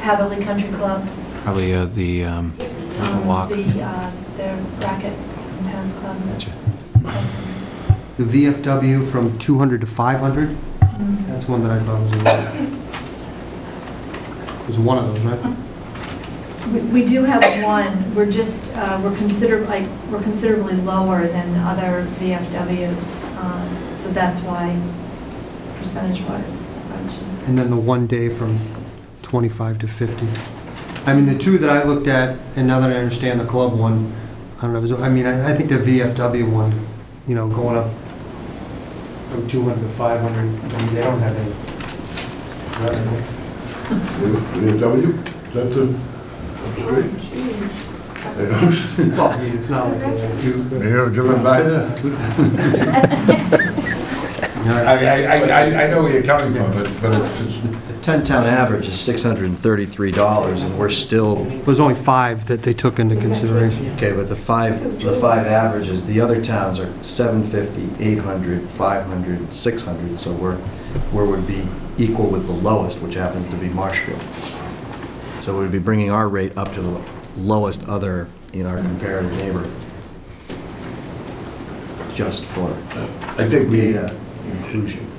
Hatherley Uh, Country Club. Probably uh, the, um, not the um, walk. The, uh, the racket and tennis club. Gotcha. The VFW from 200 to 500, Mm. that's one that I thought was in there. It was one of those, right? We- We do have one, we're just, uh, we're considerably, we're considerably lower than other VFWs, um, so that's why percentage-wise. I'm judging. And then the one day from 25 to 50. I mean, the two that I looked at, and now that I understand the club one, I don't know, is- I mean, I I think the VFW one, you know, going up from 200 to 500, I mean, they don't have any revenue. VFW, is that the, up the street? They don't, Well, I mean, it's not like they do. but- they don't driven by there? I, mean, I, I, I know where you're coming from, but, but it's, it's- The 10-town average is $633, and we're still, There's only five that they took into consideration. okay, but the five, the five averages, the other towns are 750, 800, 500, 600, so we're, we would be equal with the lowest, which happens to be Marshfield. So we'd be bringing our rate up to the lowest other in our comparative neighbor, just for I think we, data inclusion.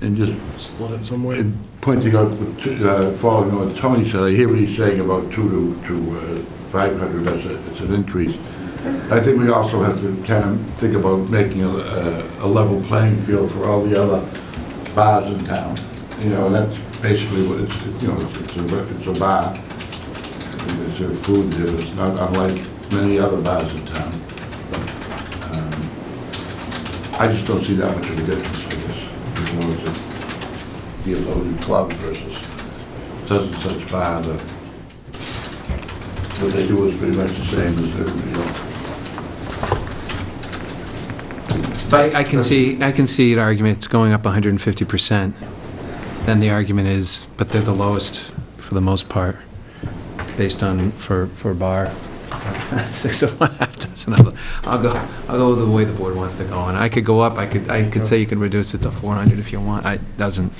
and just. Split it some way. Pointing out, what t- uh, following what Tony said, I hear what he's saying about two to, to uh, five hundred, that's a, it's an increase. I think we also have to kind of think about making a, uh, a a level playing field for all the other bars in town. You know, and that's basically what it's, you know, it's- it's a, it's a bar. And There's their food there, it's not unlike many other bars in town. Um, I just don't see that much of a difference, I guess, as long as it be a loaded club versus such and such bar, the, what they do is pretty much the same as uh, everybody else. But I can see, I can see an argument, it's going up 150%. Then the argument is, but they're the lowest for the most part, based on, for, for bar. Six of one, half dozen of the, I'll go, I'll go the way the board wants to go, and I could go up, I could, I could say you can reduce it to 400 if you want, I, doesn't.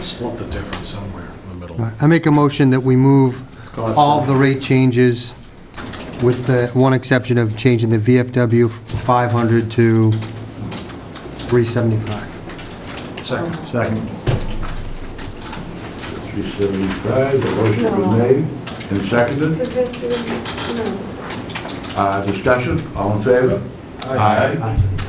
Split the difference somewhere in the middle. I make a motion that we move all of the rate changes with the one exception of changing the VFW from 500 to 375. Second. Second. Three seventy-five, the motion was made and seconded. Uh, discussion, all in favor? Aye.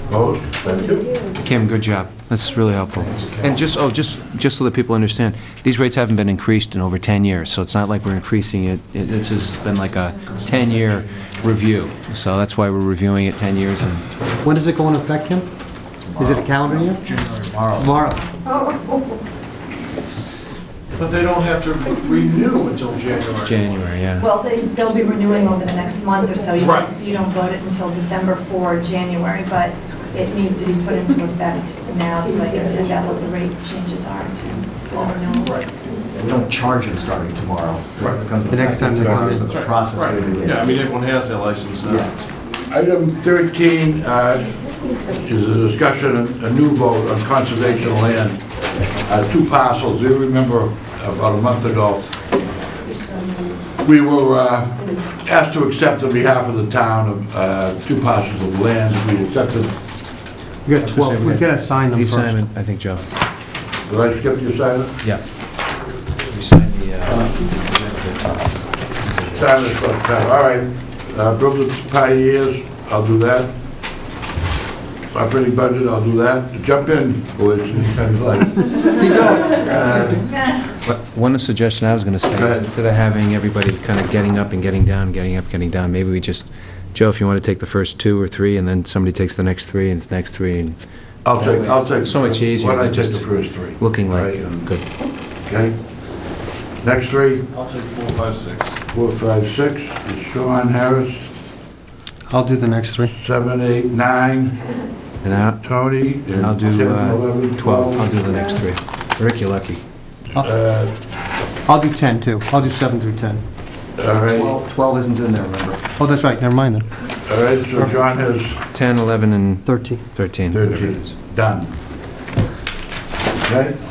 Opposed? Thank you. Kim, good job. That's really helpful. And just, oh, just, just so that people understand, these rates haven't been increased in over 10 years, so it's not like we're increasing it. It- This has been like a 10-year review, so that's why we're reviewing it 10 years and When does it go into effect, Kim? Is it a calendar year? Tomorrow. But they don't have to renew until January. January, yeah. Well, they- they'll be renewing over the next month or so. You Right. You don't vote it until December for January, but it needs to be put into effect now so they can send out what the rate changes are to all renewals. Right. We don't charge them starting tomorrow. Right. The next time they come in. It's a process. Right. we do it. Yeah, I mean, everyone has their license now. Item 13 uh, is a discussion, a new vote on conservation land, Uh, two parcels. You remember about a month ago, we were uh, asked to accept on behalf of the town of uh, two parcels of land. We accepted, We got 12, we gotta sign them Leave first. Simon, I think, Joe. did I skip your silence? uh, Yeah. You signed the, uh, Silence for the town, all right. Uh, Brooklyn's Pioneers, I'll do that. Operating budget, I'll do that. Jump in, boys, anytime you like. But One suggestion I was going to say Go is ahead. instead of having everybody kind of getting up and getting down, getting up, getting down, maybe we just, Joe, if you want to take the first two or three, and then somebody takes the next three, and the next three, and I'll That take, way I'll it's take. so much easier Why don't I than take the just first three? looking like, um, Right, and- good. Okay. Next three, I'll take four, five, six. four, five, six, is Sean Harris, I'll do the next three. seven, eight, nine, And I- Tony. and I'll do 10, uh, 11, 12, I'll do the next three. Rick, you're lucky. Uh, I'll do 10 too. I'll do 7 through 10. All right, all 12 12 isn't in there, remember? Oh, that's right, never mind then. right, so Sean has 10, 11, and 13. 13. whatever it thirteen, is. done. Okay,